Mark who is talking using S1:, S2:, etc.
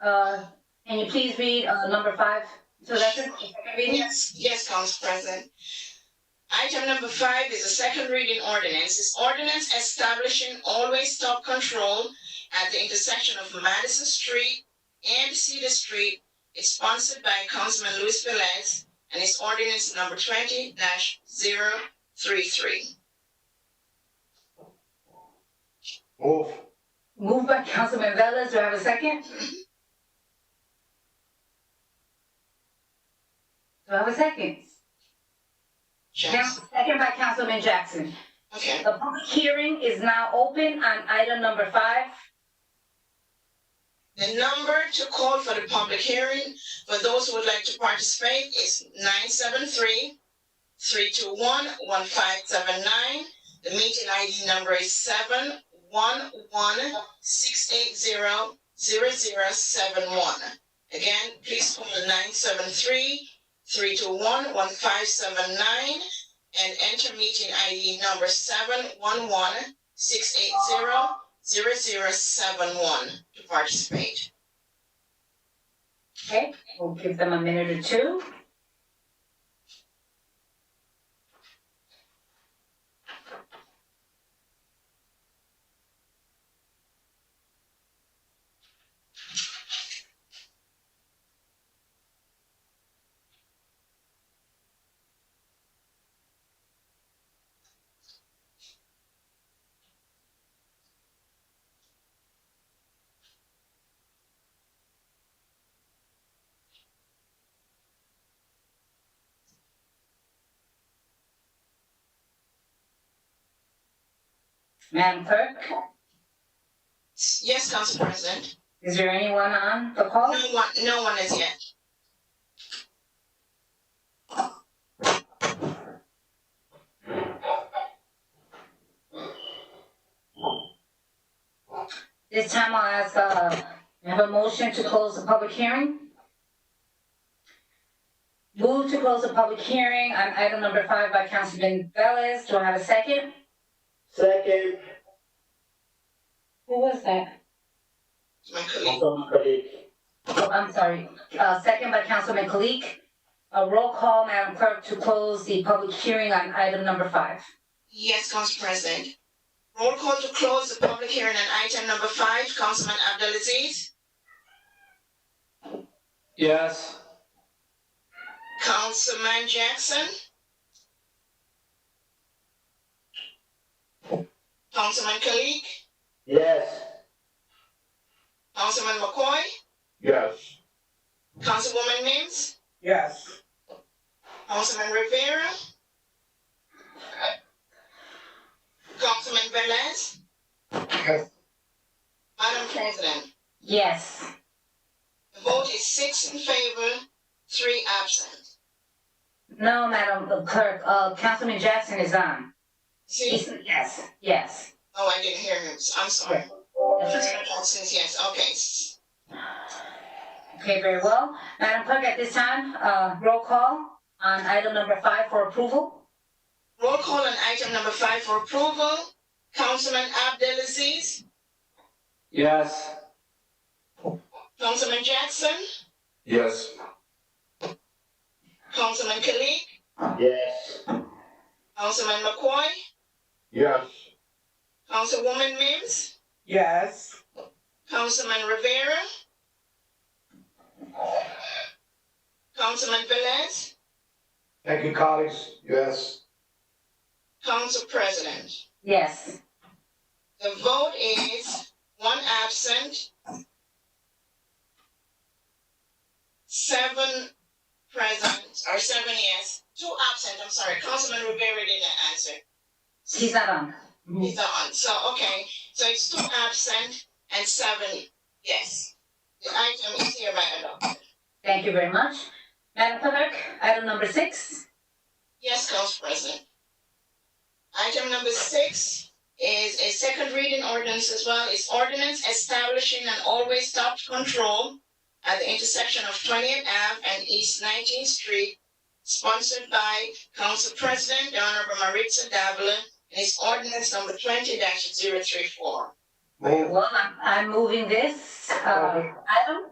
S1: Uh, can you please read, uh, number five? So that's it, the second reading?
S2: Yes, yes, Council President. Item number five is a second reading ordinance. It's ordinance establishing always stop control at the intersection of Madison Street and Cedar Street. It's sponsored by Councilman Luis Velez and it's ordinance number twenty 33
S3: Move.
S1: Moved by Councilman Velez, do I have a second? Do I have a second? Now, second by Councilman Jackson.
S2: Okay,
S1: The public hearing is now open on item number five.
S2: the number to call for the public hearing for those who would like to participate is nine seven three three two one one five seven nine. The meeting ID number is seven one one six eight zero zero zero seven one. Again, please call nine seven three three two one one five seven nine and enter meeting ID number seven one one six eight zero zero zero seven one to participate.
S1: Okay, we'll give them a minute or two. Madam Clerk,
S2: Yes, Council President.
S1: is there anyone on the call?
S2: No one, no one is yet.
S1: This time I'll ask, uh, have a motion to close the public hearing? Move to close the public hearing on item number five by Councilman Velez. Do I have a second?
S3: Second,
S1: Who was that?
S2: My colleague.
S3: Councilman Khalid.
S1: Oh, I'm sorry. Uh, second by Councilman Kalik. A roll call, Madam Clerk, to close the public hearing on item number five.
S2: Yes, Council President. Roll call to close the public hearing on item number five, Councilman Abdelaziz,
S3: Yes.
S2: Councilman Jackson. Councilman Kalik,
S3: Yes.
S2: Councilman McCoy,
S3: Yes.
S2: Councilwoman Mims,
S3: Yes.
S2: Councilman Rivera. Councilman Velez.
S3: Yes.
S2: Madam President,
S1: Yes.
S2: the vote is six in favor, three absent.
S1: No, Madam Clerk, uh, Councilman Jackson is on.
S2: See,
S1: He's, yes, yes.
S2: Oh, I didn't hear him. I'm sorry. Since yes, okay.
S1: Okay, very well. Madam Clerk, at this time, uh, roll call on item number five for approval.
S2: Roll call on item number five for approval. Councilman Abdelaziz,
S3: Yes.
S2: Councilman Jackson,
S3: Yes.
S2: Councilman Kalik,
S3: Yes.
S2: Councilman McCoy,
S3: Yes.
S2: Councilwoman Mims,
S4: Yes,
S2: Councilman Rivera, Councilman Velez,
S3: Thank you, colleagues. Yes.
S2: Council President.
S1: Yes.
S2: The vote is one absent, seven present, or seven yes, two absent, I'm sorry, Councilman Rivera didn't answer.
S1: He's not on.
S2: He's not on, so, okay, so it's two absent and seven yes. The item is hereby adopted.
S1: Thank you very much. Madam Clerk, item number six.
S2: Yes, Council President. Item number six is a second reading ordinance as well. It's ordinance establishing an always stop control at the intersection of Twentieth Ave and East Nineteenth Street, sponsored by Council President the Honorable Maritza Davila, and it's ordinance number twenty 34
S3: Move.
S1: Well, I'm, I'm moving this, uh, item.